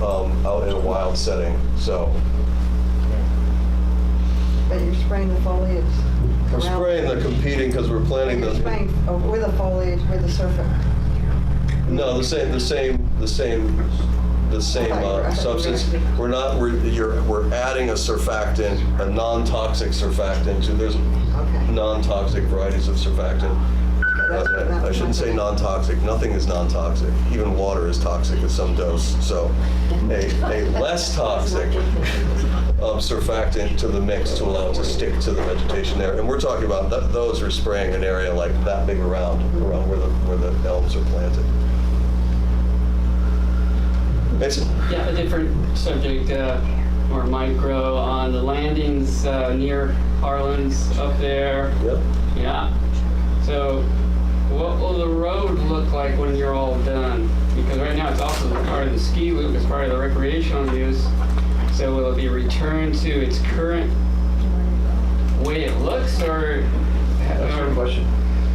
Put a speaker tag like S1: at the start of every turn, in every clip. S1: um, out in a wild setting, so.
S2: But you're spraying the foliage around.
S1: We're spraying the competing because we're planting
S2: You're
S1: the,
S2: spraying uh, with the foliage, with the surface.
S1: no, the same, the same, the same, the same uh, substance. We're not, we're, you're, we're adding a surfactant, a non-toxic surfactant to, there's
S2: Okay.
S1: non-toxic varieties of surfactant.
S2: that's- that's
S1: I shouldn't say
S2: nothing.
S1: non-toxic, nothing is non-toxic. Even water is toxic at some dose, so a, a less toxic um, surfactant to the mix to allow it to stick to the vegetation there. And we're talking about, th- those are spraying an area like that big around, around where the, where the elms are planted. Mason?
S3: Yeah, a different subject, uh, or micro, on the landings uh, near Harlan's up there.
S1: Yep.
S3: Yeah. So what will the road look like when you're all done? Because right now it's also part of the ski loop, it's part of the recreational use. So will it be returned to its current way it looks or?
S4: That's your question.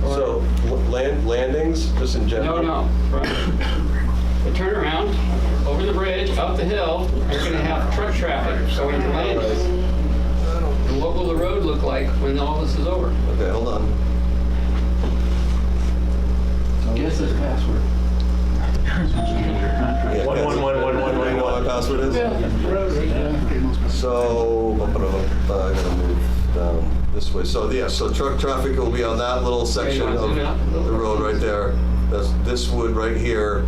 S3: or-
S1: So, l- land, landings, just in
S3: No,
S1: general?
S3: no, from the turnaround, over the bridge, up the hill, you're gonna have truck traffic going to Landis. And what will the road look like when all this is over?
S1: Okay, hold on.
S4: Guess his password.
S1: Yeah,
S5: One,
S1: that's-
S5: one, one, one, one,
S1: You
S5: one,
S1: know what
S5: one.
S1: my password is? So, I'm gonna move down this way. So, yeah, so truck traffic will be on that little section
S3: wanna
S1: of
S3: zoom out?
S1: the road right there. That's, this wood right here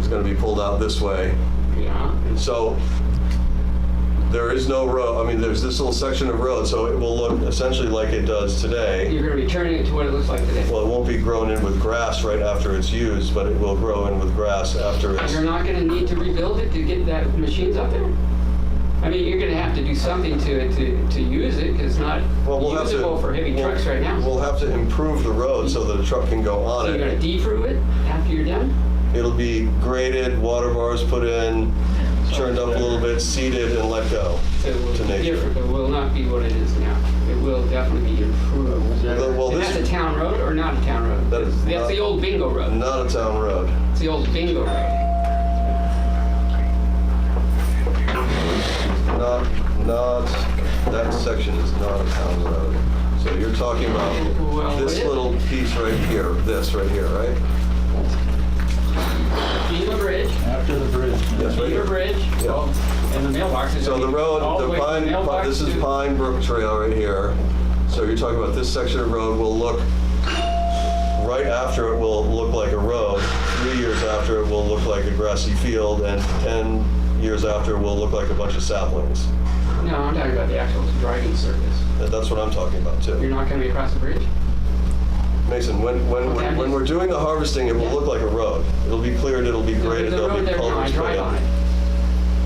S1: is gonna be pulled out this way.
S3: Yeah.
S1: So, there is no road, I mean, there's this little section of road, so it will look essentially like it does today.
S3: You're gonna be turning it to what it looks like today.
S1: Well, it won't be grown in with grass right after it's used, but it will grow in with grass after it's.
S3: You're not gonna need to rebuild it to get that machines up there? I mean, you're gonna have to do something to it to, to use it, 'cause it's not
S1: Well, we'll have to-
S3: usable for heavy
S1: we'll-
S3: trucks right now.
S1: We'll have to improve the road so that a truck can go on
S3: So you're gonna
S1: it.
S3: defrue it after you're done?
S1: It'll be graded, water bars put in, turned up a little bit, seeded, and let go.
S3: It will
S1: to
S3: be
S1: nature.
S3: different, it will not be what it is now. It will definitely be improved.
S1: Although, Well,
S3: And that's a
S1: this,
S3: town road or not a town road?
S1: That is
S3: That's
S1: not-
S3: the old bingo road.
S1: not a town road.
S3: It's the old bingo road.
S1: Not, not, that section is not a town road. So you're talking about
S3: Well,
S1: this
S3: it-
S1: little piece right here, this right here, right?
S3: Beaver Bridge,
S4: After the bridge.
S1: Yes, right
S3: Beaver
S1: here.
S3: Bridge,
S1: Yeah.
S3: well, and the mailbox is.
S1: So the
S3: all
S1: road, the
S3: way from
S1: Pine,
S3: mailbox
S1: this is
S3: to-
S1: Pine Brook Trail right here. So you're talking about this section of road will look, right after it will look like a road. Three years after it will look like a grassy field and 10 years after it will look like a bunch of saplings.
S3: No, I'm talking about the actual driving surface.
S1: And That's what I'm talking about
S3: You're
S1: too.
S3: not gonna be across the bridge?
S1: Mason, when, when,
S3: Okay.
S1: we're- when we're doing the harvesting, it will look like a road. It'll be cleared, it'll be
S3: The-
S1: graded,
S3: The
S1: there'll
S3: road
S1: be
S3: there now, I
S1: culverts put
S3: drive on
S1: in.
S3: it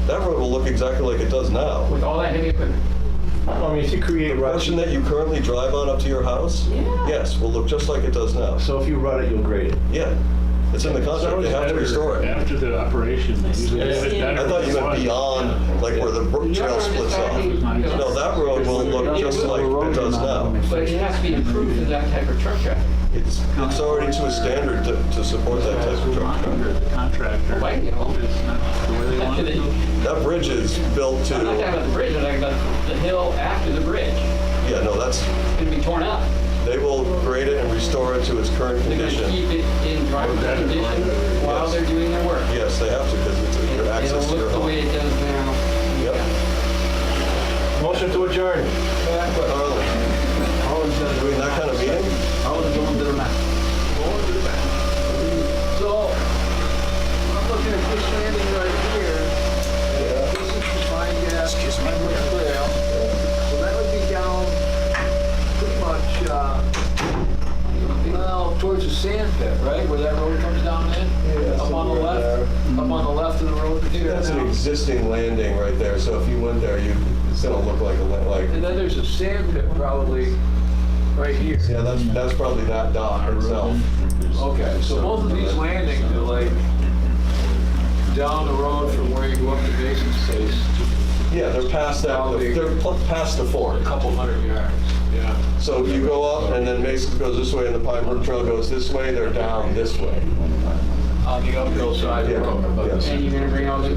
S1: That road will look exactly like it does now.
S3: with all that heavy equipment.
S5: I mean, if you create
S1: The
S5: rut,
S1: portion that you currently drive on up to your house,
S3: Yeah.
S1: yes, will look just like it does now.
S5: so if you rut it, you'll grade it.
S1: Yeah, it's in the contract, they have to restore it.
S6: After the operation, they usually have it better.
S1: I thought you meant beyond, like where the brook
S3: You're
S1: trail
S3: not
S1: splits
S3: talking-
S1: off. No, that road will look just like it does now.
S3: But it has to be improved to that type of truck traffic.
S1: It's, it's already to a standard to, to support that type of truck.
S6: The contractor.
S3: Wait, you know.
S6: It's not the way they want it to go.
S1: That bridge is built to,
S3: I'm not talking about the bridge, I'm talking about the hill after the bridge.
S1: yeah, no, that's,
S3: It's gonna be torn up.
S1: they will grade it and restore it to its current
S3: They're going to
S1: condition.
S3: keep it in drivable condition while
S1: Yes.
S3: they're doing their work.
S1: Yes, they have to, because it's
S3: It-
S1: your access
S3: It'll
S1: to your
S3: look the way
S1: home.
S3: it does now.
S1: Yep.
S5: Motion to adjourn.
S1: Harlan, Doing that kind of meeting?
S4: So, I'm looking at this landing right here. This is the fine gas, this might look clear. So that would be down pretty much, uh, well, towards the sand pit, right? Where that road comes down in? Up on the left, up on the left of the road here.
S1: That's an
S4: now.
S1: existing landing right there, so if you went there, you, it's gonna look like a, la- like,
S4: And then there's a sand pit probably right here.
S1: yeah, that's, that's probably that dock itself.
S4: Okay, so both of these landings are like down the road from where you go up to Basin Space,
S1: Yeah, they're past that,
S4: Probably-
S1: they're pl- past the
S4: a
S1: fork.
S4: couple hundred yards. Yeah.
S1: So you go up and then Mason goes this way and the Pine Brook Trail goes this way, they're down this way.
S4: On the uphill side of the road.
S1: Yeah, yes.
S3: And you're going to bring all the